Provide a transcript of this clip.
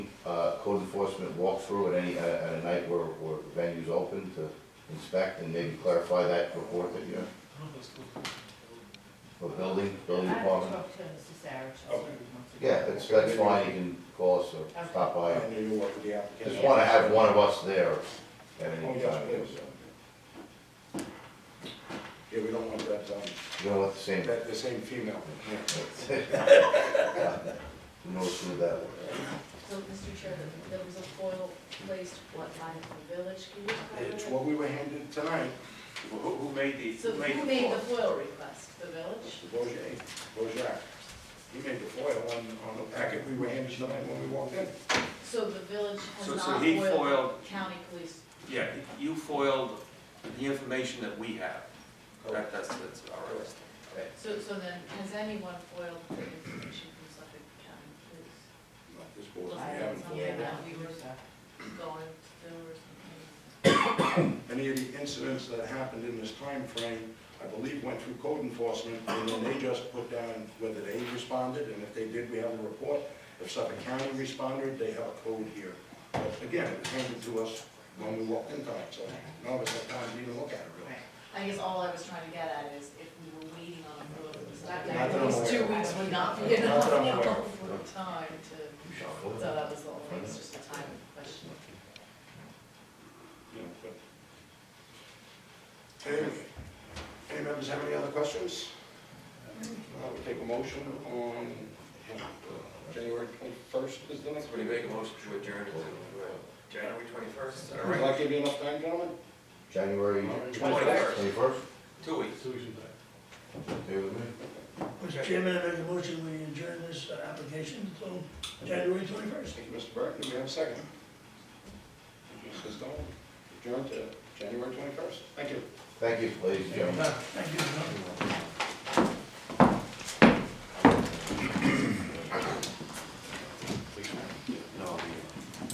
uh, code enforcement walkthrough at any, at at a night where, where venue's open to inspect and maybe clarify that report that you're, for building, building I will department? talk to Mr. Sarich. Okay. Yeah, that's, that's fine, you can call us or stop by. I knew you worked with the applicant. Just wanna have one of us there at Oh, any yes, time. please. Yeah, we don't want that, um, You don't want the same, that, the same female. yeah. who knows who that was? So, Mr. Chair, there was a foil placed, what, by the village, can you It's comment? what we were handed tonight. Who, who made the, So who made who the made the call? foil request, the village? Bojai, Bojai. He made the foil on, on the packet we were handed tonight when we walked in. So the village has So- not so he foiled foiled- county police, Yeah, you foiled the information that we have. That, that's, that's all right. so, so then, has anyone foiled the information from Suffolk County Police? Not this board, we Was haven't that something foiled. that we were going to do or something? Any of the incidents that happened in this time frame, I believe went through code enforcement, and then they just put down whether they responded, and if they did, we have a report. If Suffolk County responded, they have a code here. But again, it was handed to us when we walked in tonight, so none of us had time to even look at it, really. I guess all I was trying to get at is if we were waiting on approval, it's Not not that I'm these aware two of. weeks would not be Not enough that I'm aware of. for time to, You shall go. so that was the only, thing, it's just a time question. you know, but. Any, any members have any other questions? I would take a motion on uh, January twenty-first is the next Somebody meeting. make a motion to adjourn to, uh, January twenty-first, all Does right, that give you enough time, gentlemen? January Twenty-first. twenty-first, two weeks. okay with me? Mr. Chairman, I make a motion, we adjourn this uh, application until January twenty-first. Thank you, Mr. Burke, do we have a second? Mrs. Dolan, adjourned to January twenty-first, thank you. Thank you, ladies and gentlemen. Thank you.